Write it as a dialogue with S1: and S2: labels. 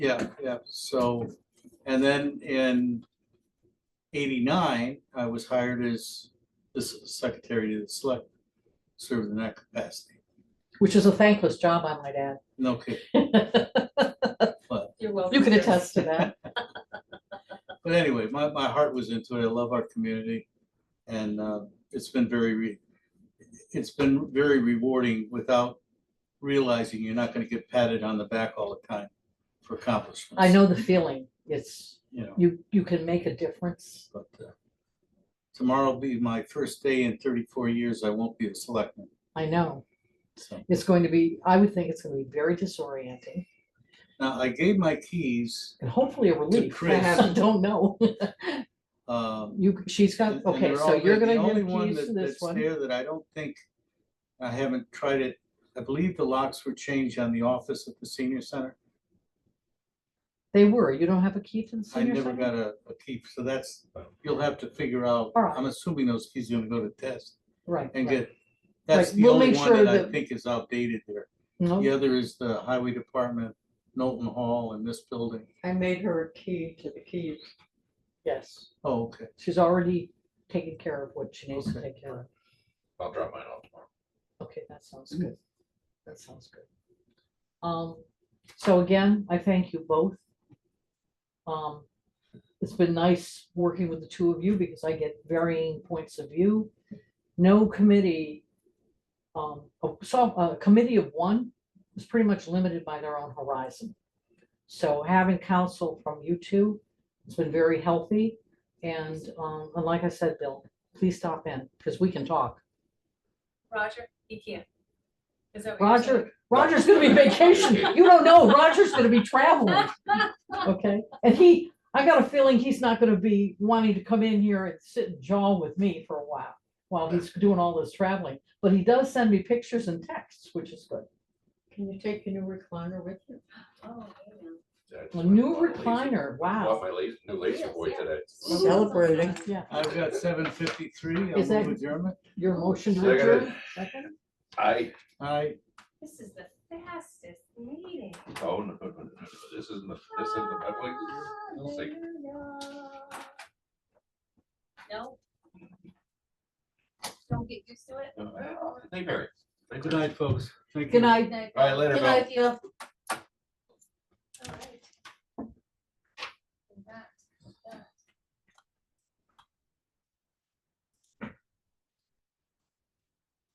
S1: Yeah, yeah, so, and then in eighty-nine, I was hired as the secretary to the select, served in that capacity.
S2: which is a thankless job, I might add.
S1: No kidding.
S3: You're welcome.
S2: You can attest to that.
S1: But anyway, my, my heart was into it. I love our community. And uh, it's been very, re- it's been very rewarding without realizing you're not going to get patted on the back all the time for accomplishments.
S2: I know the feeling. It's,
S1: You know,
S2: you, you can make a difference.
S1: but uh, tomorrow will be my first day in 34 years. I won't be a selectman.
S2: I know.
S1: So
S2: It's going to be, I would think it's gonna be very disorienting
S1: now I gave my keys.
S2: and hopefully a relief.
S1: Chris.
S2: I don't know.
S1: um,
S2: You, she's got,
S1: And- and
S2: okay,
S1: they're
S2: so
S1: all
S2: you're
S1: there. The
S2: gonna
S1: only
S2: give
S1: one
S2: keys
S1: that-
S2: to this
S1: that's
S2: one.
S1: There that I don't think, I haven't tried it, I believe the locks were changed on the office at the senior center.
S2: They were, you don't have a key to the
S1: I
S2: senior
S1: never
S2: center?
S1: got a, a key, so that's, you'll have to figure out,
S2: All right.
S1: I'm assuming those keys are gonna go to test
S2: Right.
S1: and
S2: right.
S1: get, that's
S2: Right,
S1: the
S2: we'll
S1: only
S2: make
S1: one
S2: sure
S1: that I
S2: that-
S1: think is outdated there.
S2: No,
S1: The other is the highway department, Knowlton Hall and this building.
S3: I made her a key to the keys.
S2: yes,
S1: Oh, okay,
S2: she's already taken care of what she needs to
S1: Okay.
S2: take care of.
S4: I'll drop mine off tomorrow.
S2: Okay, that sounds
S1: Mm.
S2: good. That sounds good. Um, so again, I thank you both. Um, it's been nice working with the two of you because I get varying points of view. No committee, um, oh, so a committee of one is pretty much limited by their own horizon. So having counsel from you two, it's been very healthy. And, um, and like I said, Bill, please stop in because we can talk.
S3: Roger, he can't. Is that what you're saying?
S2: Roger, Roger's gonna be vacation. You don't know, Roger's gonna be traveling. Okay, and he, I got a feeling he's not gonna be wanting to come in here and sit and jaw with me for a while. While he's doing all this traveling, but he does send me pictures and texts, which is good.
S5: Can you take your new recliner with you?
S3: Oh, I know.
S4: Yeah, I just
S2: A
S4: went
S2: new
S4: and bought a laser-
S2: recliner,
S4: Bought
S2: wow.
S4: my laser, new laser
S3: Yes,
S4: boy
S3: yeah.
S4: today.
S5: Celebrating.
S2: Yeah,
S1: I've got seven fifty-three, I'll
S2: Is that-
S1: move adjournment.
S2: your motion to
S4: Seconded.
S2: adjourn, second?
S4: I,
S1: I,
S3: This is the fastest meeting.
S4: oh, no, no, no, no, no, this isn't the, this isn't the, I believe this
S3: Ah,
S4: is- I'll see.
S3: Hallelujah. No. Don't get used to it.
S4: oh, no, I- I- they vary. They
S1: good
S4: vary.
S1: night, folks. Thank you.
S2: Good night.
S3: Good night.
S4: All right, later,
S5: Good
S4: Bill.
S5: night, Bill.